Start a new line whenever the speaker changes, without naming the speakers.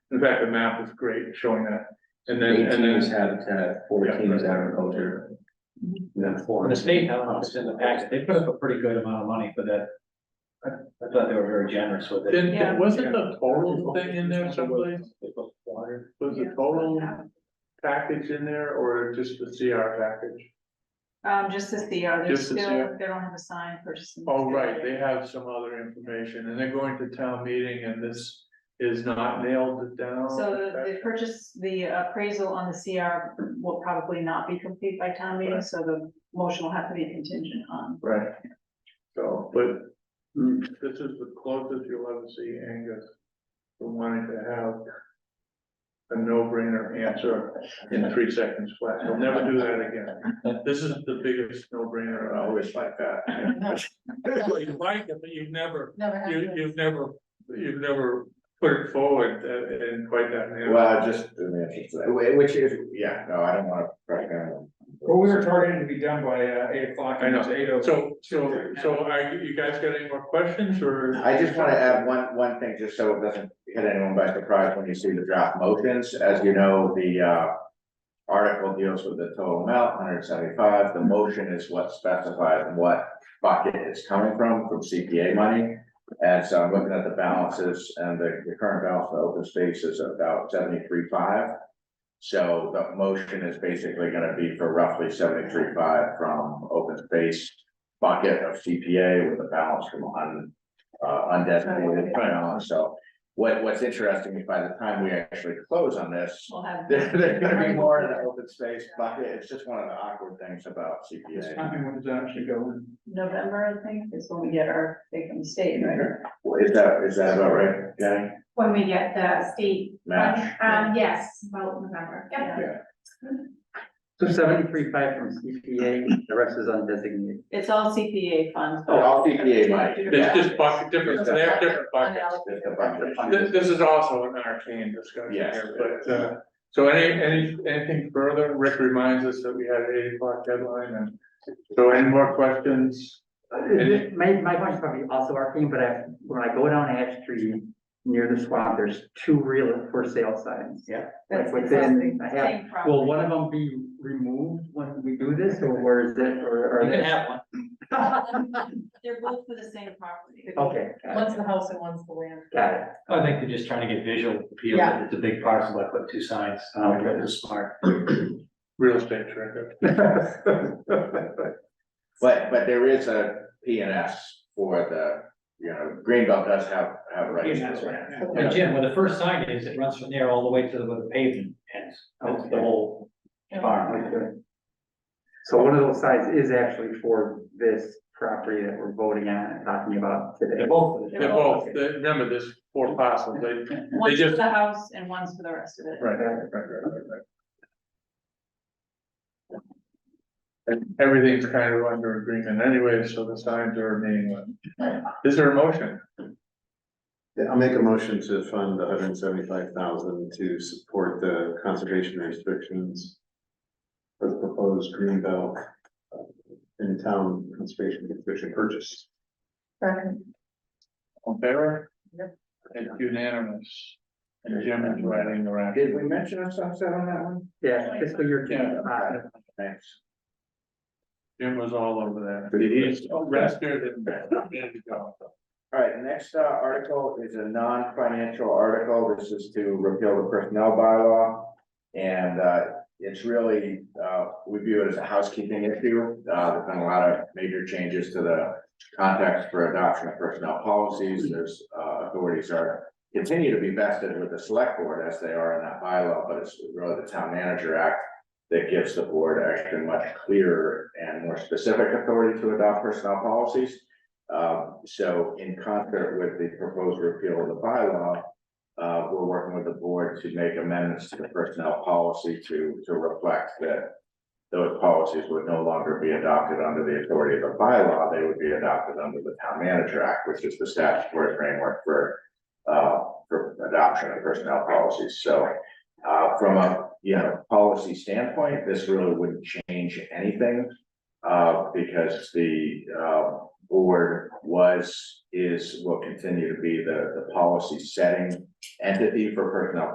fact, the map is great showing that. And then, and
Eighteen is
then,
habitat, fourteen is agriculture. Yeah,
When
four.
the state, I don't know, if it's in the package, they put up a pretty good amount of money for that. I I thought they were very generous with it.
then,
Yeah.
then wasn't the total thing in there someplace?
Water.
Was the total package in there or just the CR package?
Um, just to see, are they
Just to
still,
see
they
it.
don't have a sign person.
Oh, right, they have some other information and they're going to town meeting and this is not nailed down.
So the- the purchase, the appraisal on the CR will probably not be complete by town meeting,
Right.
so the motion will have to be contingent on.
Right. So, but Hmm, this is the closest you'll ever see Angus to wanting to have a no-brainer answer in three seconds flat. He'll never do that again. This is the biggest no-brainer, I always like that. You like it, but you've never, you, you've never, you've never put it forward uh, in quite that manner.
Well, just, I mean, it's- wh- which is, yeah, no, I don't wanna crack down.
Well, we were targeted to be done by uh, eight o'clock and it's eight oh.
So, so, so are you you guys got any more questions or?
I just wanna add one, one thing, just so it doesn't hit anyone by surprise when you see the draft motions, as you know, the, uh. Article deals with the total amount, hundred seventy-five, the motion is what specifies what bucket it's coming from, from CPA money. And so I'm looking at the balances and the, the current balance for open space is about seventy-three five. So the motion is basically gonna be for roughly seventy-three five from open space bucket of CPA with a balance from un, uh, undesignated fund, so. What, what's interesting is by the time we actually close on this,
We'll have.
there, there's gonna be more in the open space bucket, it's just one of the awkward things about CPA.
Timing was actually going.
November, I think, is when we get our big from the state, right?
Well, Is that, is that about right, Jenny?
When we get the state.
Match.
Um, yes, about November, yeah.
So seventy-three five from CPA, the rest is undesignated.
It's all CPA funds. but-
Oh, all CPA money.
There's just bucket, different, they have different buckets.
Just a bucket.
This, this is also an arcane discussion
Yes.
here, but, uh, so any, any, anything further? Rick reminds us that we had an eight o'clock deadline and, so any more questions?
Uh,
Any-
My, my one's probably also arcane, but I, when I go down Ash Street near the swamp, there's two real for sale signs. Yeah.
That's
Like
the
within,
same-
I have,
same property.
will one of them be removed when we do this, or where is it, or are
You can
they?
have one.
They're both for the same property.
Okay, got it,
One's the house and one's the land.
got it.
I think they're just trying to get visual appeal.
Yeah.
It's a big parcel, I put two signs, um, it's smart.
Real estate director.
But, but there is a P and S for the, you know, Greenbelt does have, have rights.
Yeah, that's right.
Yeah.
And Jim, where the first sign is, it runs from there all the way to where the pavement ends. That's the whole farm.
So one of those sides is actually for this property that we're voting on and talking about today.
They're both.
They're both, they- remember, there's four parcels, they, right,
One's for
just-
the house and one's for the rest of it.
right, right, right, right. And everything's kind of under agreement anyway, so the signs are meaningless. Is there a motion?
Yeah, I'll make a motion to fund the hundred and seventy-five thousand to support the conservation restrictions. For the proposed Greenbelt. uh, In town conservation restriction purchase.
On favor? It's unanimous. And Jim is writing the rap.
Did we mention a sunset on that one?
Yeah, fiscal year two
Yeah.
five.
Thanks.
Jim was all over that. He's rested and ready to go.
All right, next uh, article is a non-financial article. This is to repeal the personnel bylaw. And uh, it's really, uh, we view it as a housekeeping issue. Uh, there's been a lot of major changes to the context for adoption of personnel policies. There's uh, authorities are continue to be vested with the select board as they are in that bylaw, but it's really the town manager act that gives the board actually much clearer and more specific authority to adopt personnel policies. Um, so in concert with the proposed repeal of the bylaw. Uh, we're working with the board to make amendments to the personnel policy to, to reflect that. Those policies would no longer be adopted under the authority of the bylaw, they would be adopted under the town manager act, which is the statutory framework for. Uh, for adoption of personnel policies, so. Uh, from a, you know, policy standpoint, this really wouldn't change anything. Uh, because the, uh, board was, is, will continue to be the, the policy setting entity for personnel